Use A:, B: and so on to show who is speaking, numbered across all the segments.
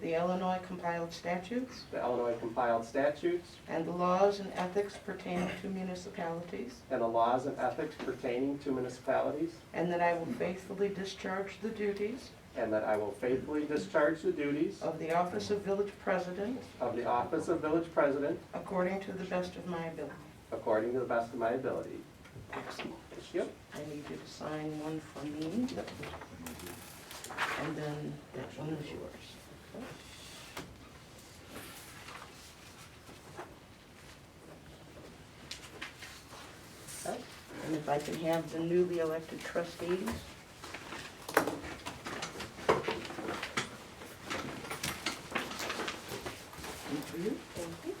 A: the Illinois compiled statutes
B: the Illinois compiled statutes,
A: and the laws and ethics pertaining to municipalities,
B: and the laws and ethics pertaining to municipalities,
A: and that I will faithfully discharge the duties
B: and that I will faithfully discharge the duties
A: of the office of village president
B: of the office of village president
A: according to the best of my ability.
B: according to the best of my ability. Thank you.
A: I need you to sign one for me. And then that one is yours. Okay. And if I can have the newly elected trustees. And for you. Thank you.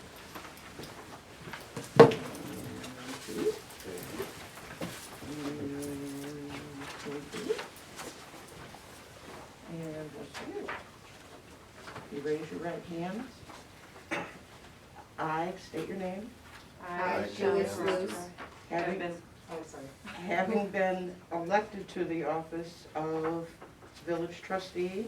A: And what's here? You raise your right hand. I state your name,
C: I, Julia
D: Julia Sluse,
C: Sluse, have
A: having,
C: been, oh, sorry,
A: having been elected to the office of village trustee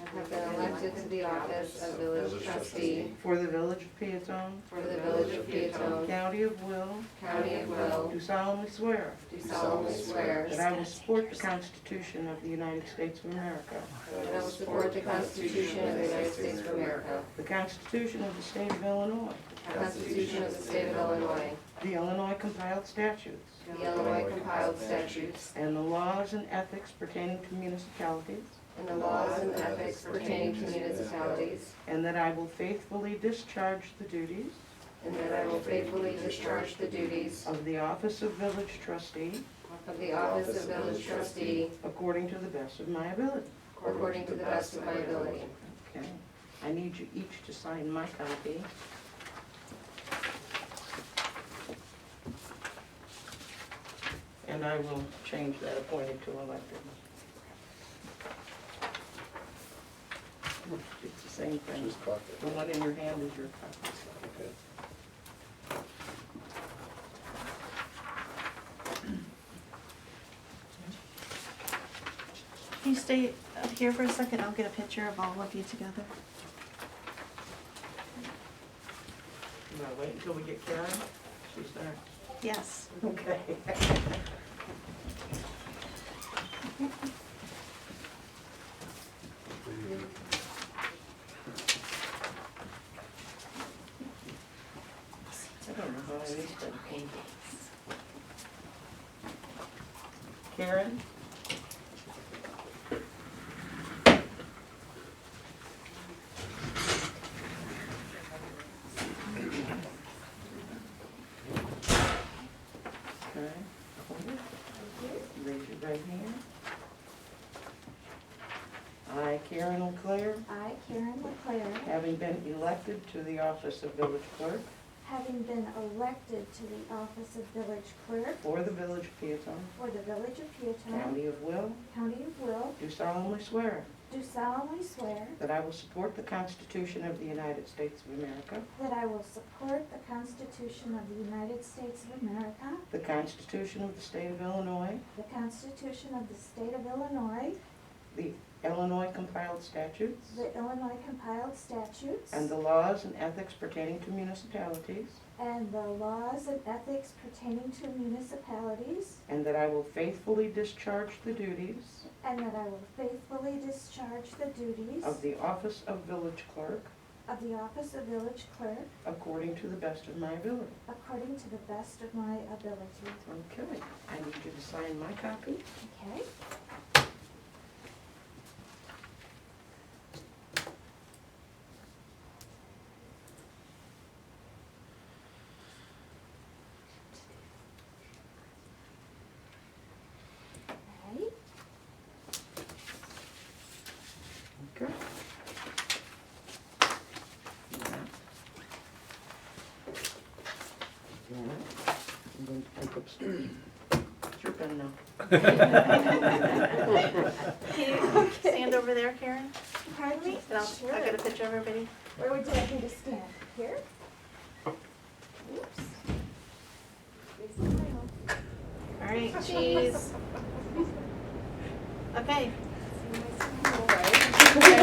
D: have been elected to the office of village trustee
A: for the village of Peatone,
D: for the village of Peatone,
A: county of Will,
D: county of Will,
A: do solemnly swear
D: do solemnly swear
A: that I will support the Constitution of the United States of America,
D: that I will support the Constitution of the United States of America,
A: the Constitution of the State of Illinois,
D: the Constitution of the State of Illinois,
A: the Illinois compiled statutes,
D: the Illinois compiled statutes,
A: And the laws and ethics pertaining to municipalities.
D: and the laws and ethics pertaining to municipalities,
A: And that I will faithfully discharge the duties
D: and that I will faithfully discharge the duties
A: of the office of village trustee
D: of the office of village trustee
A: according to the best of my ability.
D: according to the best of my ability.
A: Okay. I need you each to sign my copy. And I will change that appointed to elected. It's the same thing. The one in your hand is your copy.
E: Can you stay up here for a second? I'll get a picture of all of you together.
A: You wanna wait until we get Karen? She's there.
E: Yes.
A: Okay. I don't know how I missed that. Karen? Okay. Raise your right hand. I, Karen O'Clair,
F: I, Karen LeClaire,
A: having been elected to the office of village clerk
F: having been elected to the office of village clerk
A: for the village of Peatone,
F: for the village of Peatone,
A: county of Will,
F: county of Will,
A: do solemnly swear
F: do solemnly swear
A: that I will support the Constitution of the United States of America,
F: that I will support the Constitution of the United States of America,
A: the Constitution of the State of Illinois,
F: the Constitution of the State of Illinois,
A: the Illinois compiled statutes,
F: the Illinois compiled statutes,
A: and the laws and ethics pertaining to municipalities,
F: and the laws and ethics pertaining to municipalities,
A: and that I will faithfully discharge the duties
F: and that I will faithfully discharge the duties
A: of the office of village clerk
F: of the office of village clerk
A: according to the best of my ability.
F: according to the best of my ability.
A: Okay, I need you to sign my copy.
F: Okay. Alright.
A: Okay. I'm going to take upstairs. It's your pen now.
E: Can you stand over there, Karen?
F: Pardon me?
E: And I'll, I'll get a picture of everybody.
F: Where would you like me to stand? Here? Oops.
E: All right, cheese. Okay.
F: See my smile.
E: Okay.